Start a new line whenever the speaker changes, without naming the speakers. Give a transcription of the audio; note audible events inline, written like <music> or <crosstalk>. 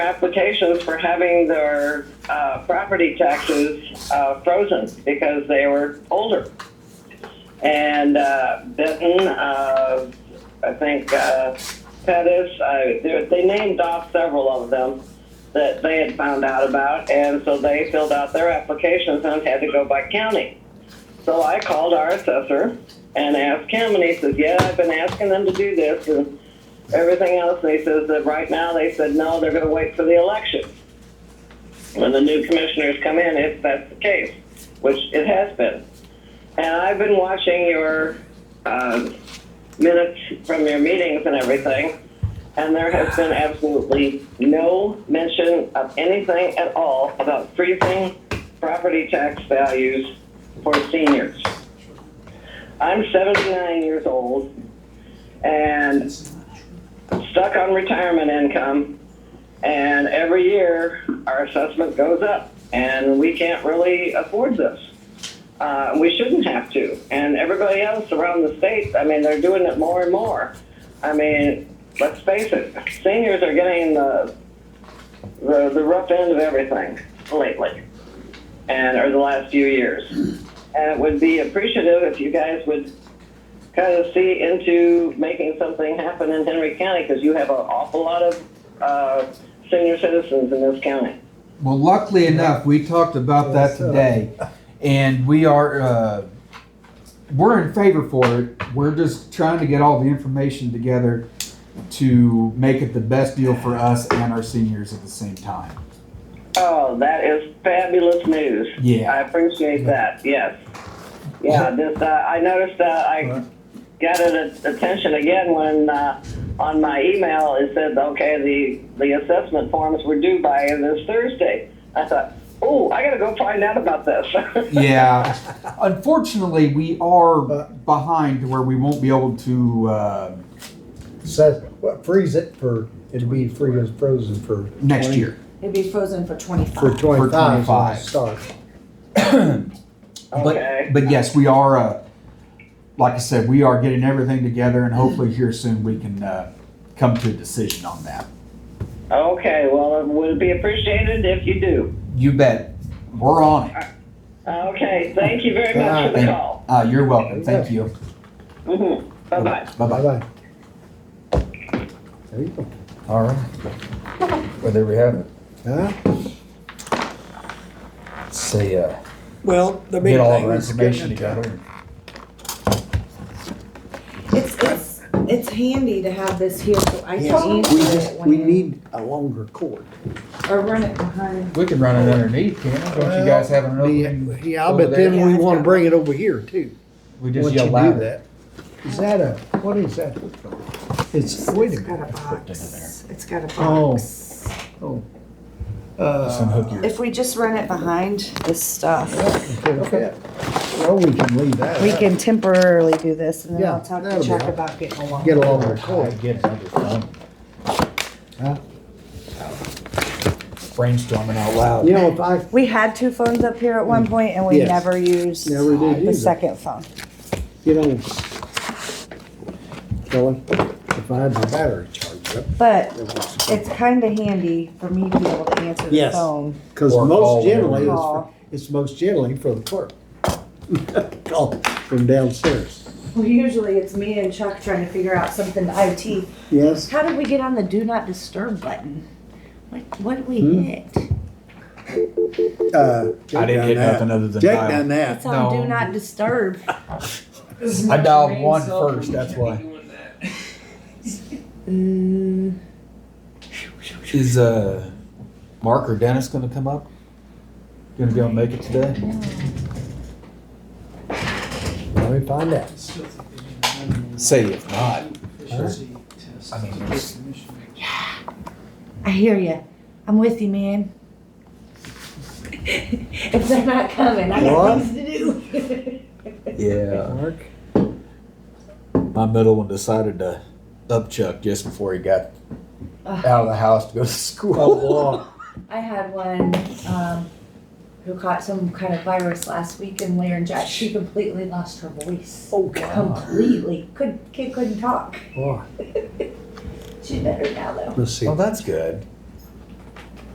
applications for having their uh, property taxes uh, frozen because they were older. And uh, Benton, uh, I think uh, Pettis, I, they they named off several of them that they had found out about, and so they filled out their applications and had to go by county. So I called our assessor and asked him, and he says, "Yeah, I've been asking them to do this and everything else." And he says that right now they said no, they're going to wait for the election. When the new commissioners come in, if that's the case, which it has been, and I've been watching your uh, minutes from your meetings and everything, and there has been absolutely no mention of anything at all about freezing property tax values for seniors. I'm 79 years old and stuck on retirement income, and every year our assessment goes up, and we can't really afford this. Uh, we shouldn't have to. And everybody else around the state, I mean, they're doing it more and more. I mean, let's face it, seniors are getting the, the, the rough end of everything lately, and or the last few years. And it would be appreciative if you guys would kind of see into making something happen in Henry County because you have an awful lot of uh, senior citizens in this county.
Well, luckily enough, we talked about that today, and we are uh, we're in favor for it. We're just trying to get all the information together to make it the best deal for us and our seniors at the same time.
Oh, that is fabulous news.
Yeah.
I appreciate that. Yes. Yeah, this, uh, I noticed uh, I got it at- attention again when uh, on my email it said, okay, the, the assessment forms were due by this Thursday. I thought, oh, I got to go find out about this. <laughs>
Yeah, unfortunately, we are behind to where we won't be able to. Uh,
says, well, freeze it for, it'd be free as frozen for.
Next
20
year.
It'd be frozen for
For
twenty-five.
twenty-five, is when
25.
it start.
okay.
But, but yes, we are. Uh, like I said, we are getting everything together, and hopefully, here soon we can uh, come to a decision on that.
Okay, well, it would be appreciated if you do.
You bet. We're on it.
Okay, thank you very much for the
Thank-
call.
Uh, you're welcome. Thank you.
hmm Bye-bye.
Bye bye.
Bye-bye. There you go.
All right. <laughs> Well, there we have it.
Huh?
Let's Say, uh,
Well, the big
get all of
thing
our
is getting
information
it done.
together.
It's, it's, it's handy to have this here, so I
Yes,
can answer
we just,
it
we
when,
need a longer cord.
or run it behind.
We can run it underneath, can we? Don't you guys have an opening?
Yeah, I
over
bet
there?
then we wanna bring it over here too.
We
Once
just
you
yell
do
loud.
that. Is that a, what is that? It's, wait a
It's got
minute.
a box, it's got a
Oh.
box.
Uh,
Just unhook your-
If we just run it behind this stuff,
okay. Well, we can leave that.
we
out.
can temporarily do this and then
Yeah,
I'll talk
that'll
to
be
Chuck
all right.
about getting along.
Get a longer cord.
Get another phone.
Huh?
Brainstorming out loud.
You know, if I,
We had two phones up here at one point and we
Mm. Yes.
never used
Never did
the
use it.
second phone.
you know, Kelly, if I had my battery charged up,
But
it would
it's kinda handy for me to be able to answer the
Yes.
phone.
Because
Or call
most generally,
whenever.
it's,
Call.
for- it's most generally for the clerk. <laughs> Call from downstairs.
Well, usually it's me and Chuck trying to figure out something to IT.
Yes,
How did we get on the do not disturb button? What, what did we
Hmm.
hit?
uh.
I didn't hit nothing other than
Jake
dial.
done that.
It's on
No.
do not disturb.
I dialed one first, that's why.
Mm,
Is, uh, Mark or Dennis gonna come up? Gonna be able to make it today?
Let me find out.
Say if not. I mean, there's-
I hear you. I'm with you, man. <laughs> if they're not coming, I got
What?
things to do. <laughs>
Yeah.
Mark,
My middle one decided to up Chuck just before he got out of the house to go to
Oh,
school.
I had one um, who caught some kind of virus last week in laryngitis. She completely lost her voice.
Oh, God.
Completely. Could kid couldn't talk.
Boy,
<laughs> She's better now though.
let's see.
well, that's good.